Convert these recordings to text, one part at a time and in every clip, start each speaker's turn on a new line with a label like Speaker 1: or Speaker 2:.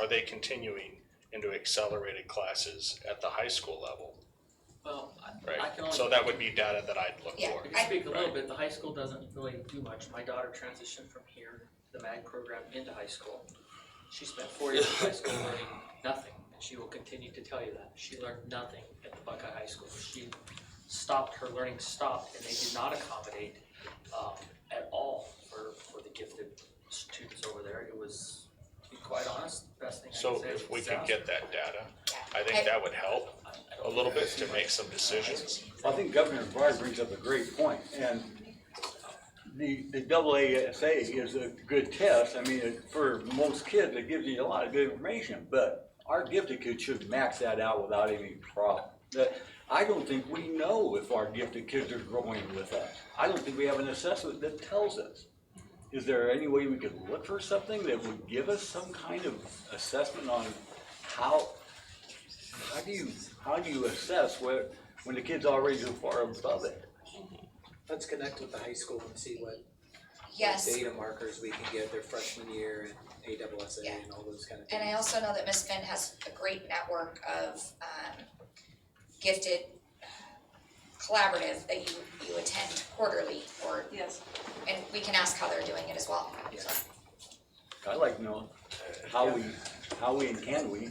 Speaker 1: are they continuing into accelerated classes at the high school level,
Speaker 2: Well, I, I
Speaker 1: right?
Speaker 2: can only.
Speaker 1: So that would be data that I'd look
Speaker 3: Yeah.
Speaker 1: for.
Speaker 2: I can speak a little
Speaker 1: Right.
Speaker 2: bit, the high school doesn't really do much, my daughter transitioned from here, the MAG program into high school. She spent four years in high school learning nothing, and she will continue to tell you that, she learned nothing at the Buckeye High School, she stopped, her learning stopped, and they did not accommodate, um, at all for, for the gifted students over there, it was, to be quite honest, the best thing I could
Speaker 1: So
Speaker 2: say.
Speaker 1: if we
Speaker 2: was
Speaker 1: could get
Speaker 2: disaster.
Speaker 1: that data,
Speaker 3: Yeah.
Speaker 1: I think that would help
Speaker 2: I- I don't
Speaker 1: a little
Speaker 2: think
Speaker 1: bit to make some decisions.
Speaker 4: I think Governor Breyer brings up a great point, and the, the double ASA is a good test. I mean, it- for most kids, it gives you a lot of good information, but our gifted kids should max that out without any problem. That, I don't think we know if our gifted kids are growing with us. I don't think we have an assessment that tells us. Is there any way we could look for something that would give us some kind of assessment on how, how do you, how do you assess where, when the kid's already so far above it?
Speaker 5: Let's connect with the high school and see what
Speaker 3: Yes.
Speaker 5: data markers we can get their freshman year and AWSA
Speaker 3: Yeah.
Speaker 5: and all those kind of things.
Speaker 3: And I also know that Miss Finn has a great network of um gifted collaborative that you you attend quarterly or
Speaker 6: Yes.
Speaker 3: and we can ask how they're doing it as well.
Speaker 5: Yeah.
Speaker 4: I'd like to know how we, how we and can we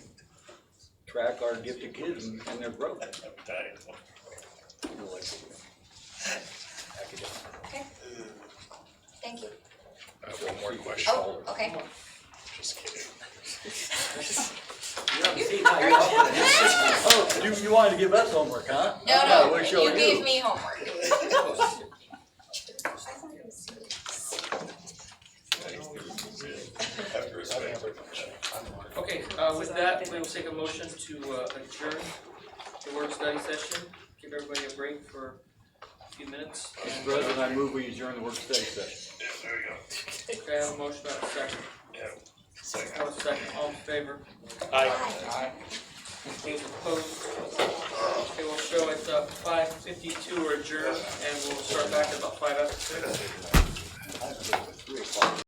Speaker 4: track our gifted kids and and their growth.
Speaker 1: Uh,
Speaker 3: Okay. Thank you.
Speaker 1: I have one more question,
Speaker 3: Oh, okay.
Speaker 1: just kidding.
Speaker 2: You haven't seen
Speaker 3: Are
Speaker 2: how
Speaker 3: you-
Speaker 2: you
Speaker 4: Oh, you, you wanted to give us homework, huh? I
Speaker 3: No, no,
Speaker 4: wish I
Speaker 3: you
Speaker 4: knew.
Speaker 3: gave me homework.
Speaker 2: Okay, uh, with that, we will take a motion to uh, adjourn the work study session, give everybody a break for a few minutes.
Speaker 4: Mr. President, I move we adjourn the work study session.
Speaker 2: Okay, I have a motion, I have a second. I have a second, all in favor,
Speaker 1: I,
Speaker 2: any opposed? Okay, we'll show it's uh five fifty-two, we're adjourned, and we'll start back at about five after six.
Speaker 4: I have to go at three o'clock.